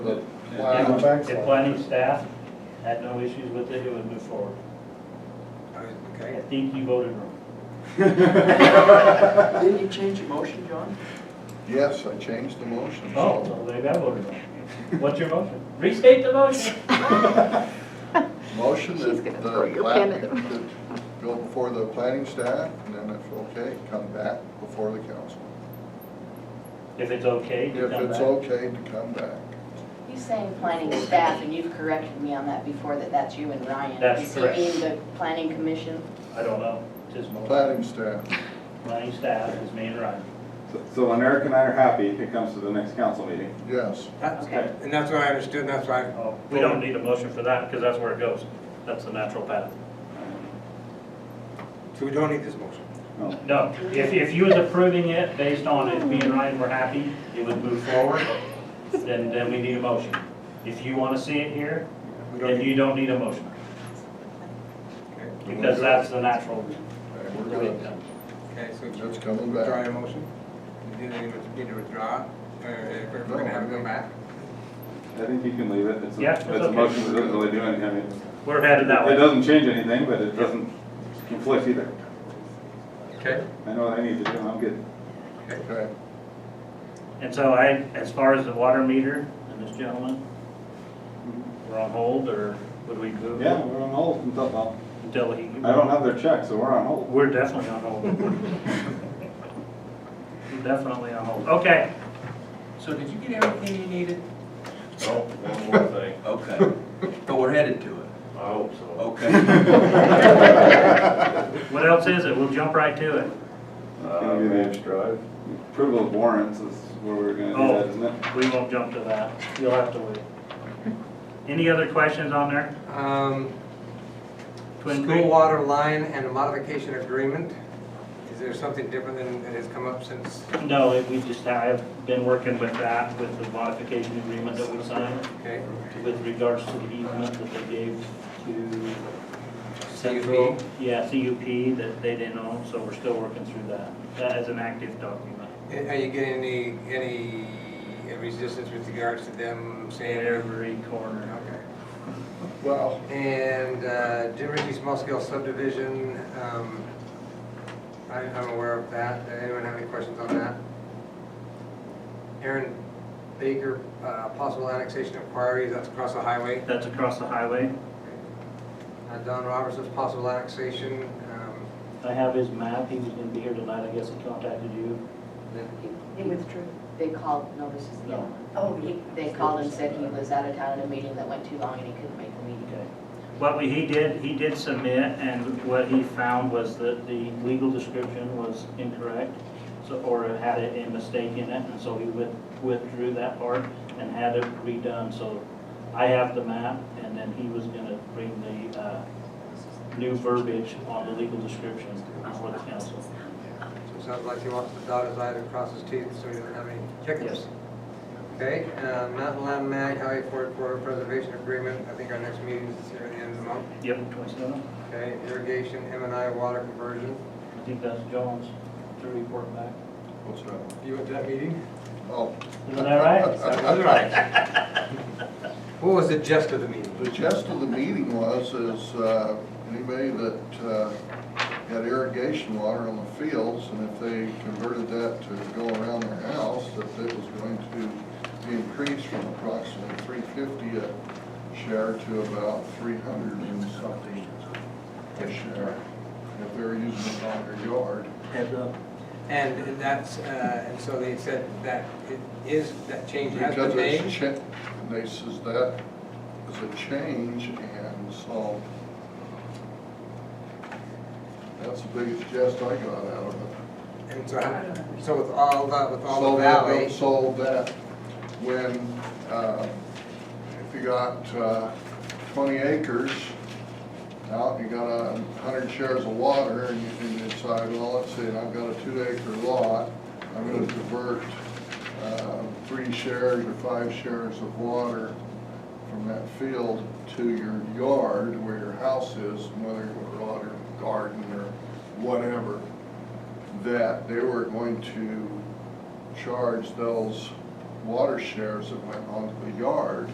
But Yeah, Wow, but The planning staff had no issues with it, it would move forward. I Okay. think you voted wrong. Didn't you change your motion, John? yes, I changed the motion. Oh, so- well, they got voted wrong. What's your motion? Restate the motion. Motion She's that the gonna throw your plat- pen at them. that Go before the planning staff, and then if okay, come back before the council. If it's okay, you If come it's back. okay to come back. He's saying planning staff, and you've corrected me on that before, that that's you and Ryan. That's correct. Is he in the planning commission? I don't know, just motion. Planning staff, Planning staff is me and Ryan. So- So America and I are happy if it comes to the next council meeting. yes. That's- Okay. And that's what I understood, and that's why, Oh, We don't need a motion for that, because that's where it goes. That's the natural path. so we don't need this motion. No. No, if, if you was approving it based on if me and Ryan were happy, it would move forward, then, then we need a motion. If you want to see it here, We don't then need, you don't need a motion. okay, Because that's the natural. And we're gonna, okay, so it's you coming withdraw back. your motion? You didn't need to withdraw, or if we're gonna have it come back? I think you can leave it. It's a- Yeah, it's It's a okay. motion that doesn't really do anything. I mean, We're headed that It way. doesn't change anything, but it doesn't conflict either. Okay. I know what I need to do, I'm good. Okay, And so I, as far as the water meter and this gentleman, we're on hold or would we move? it Yeah, we're on hold until, well, Until he. I don't have their check, so we're on hold. We're definitely on hold. We're Definitely on hold. Okay. So did you get everything you needed? Oh, one more thing. Okay, but we're headed to it, I hope so. okay. What else is it? We'll jump right to it. Gonna be the Drive? Approval of warrants is where we're gonna Oh. do that, isn't it? We won't jump to that. You'll have to wait. Any other questions on there? Um, Twin school Creek? water line and a modification agreement, is there something different than, that has come up since? No, we just, I've been working with that, with the modification agreement that we signed Okay, with regards to the easement that they gave to CUP? Yeah, CUP that they didn't own, so we're still working through that. That is an active document. Are you getting any, any resistance with regards to them saying? Every corner. Okay. well, And uh, Jim Ritchie small scale subdivision, um, I- I'm aware of that. Does Anyone have any questions on that? Aaron Baker, uh, possible annexation of quarries, that's across the highway. That's across the highway. Uh, Don Robertson's possible annexation, um, I have his map. He was gonna be here tonight. I guess he contacted you. He withdrew. They called, no, this is the other one. Oh, He- They called and said he was out of town at a meeting that went too long and he couldn't make the meeting. Okay. What we, he did, he did submit, and what he found was that the legal description was incorrect, so, or had a a mistake in it, and so he with- withdrew that part and had it redone, so I have the map, and then he was gonna bring the, uh, new verbiage on the legal description before the council. so it sounds like he wants to dot his i and cross his teeth, so he doesn't have any chickens. Yes. Okay, uh, Mountain Land Mag, Highway Ford Corridor Preservation Agreement, I think our next meeting is here at the end of the month. Yep, twenty-seven. Okay, irrigation, M and I water conversion. I think that's Jones to report back. what's that? You went to that meeting? Oh, Isn't that right? That was right. What was the gist of the meeting? the gist of the meeting was, is uh, anybody that uh, had irrigation water on the fields, and if they converted that to go around their house, that it was going to be increased from approximately three fifty a share to about three hundred and something a share, if they were using it on their yard. And that's, uh, and so they said that it is, that change has Because been it's made? cha, and they says that is a change, and so that's the biggest jest I got out of it. And so, how- so with all the, with all So the that- valley, So that when, uh, if you got uh, twenty acres out, and you got a hundred shares of water, and you can decide, well, let's see, I've got a two acre lot, I'm gonna divert uh, three shares or five shares of water from that field to your yard where your house is, whether your yard or garden or whatever that they were going to charge those water shares that went onto the yard.